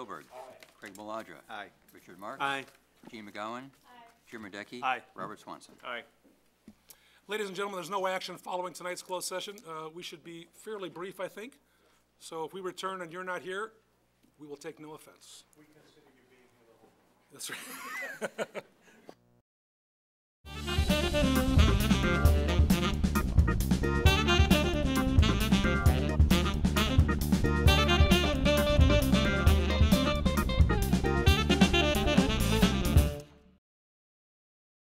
Milberg. Craig Maladra. Aye. Richard Marks. Aye. Gene McGowan. Jim Radecki. Aye. Robert Swanson. Aye. Ladies and gentlemen, there's no action following tonight's closed session. Uh, We should be fairly brief, I think. So if we return and you're not here, we will take no offense. We consider you being here the whole. That's right.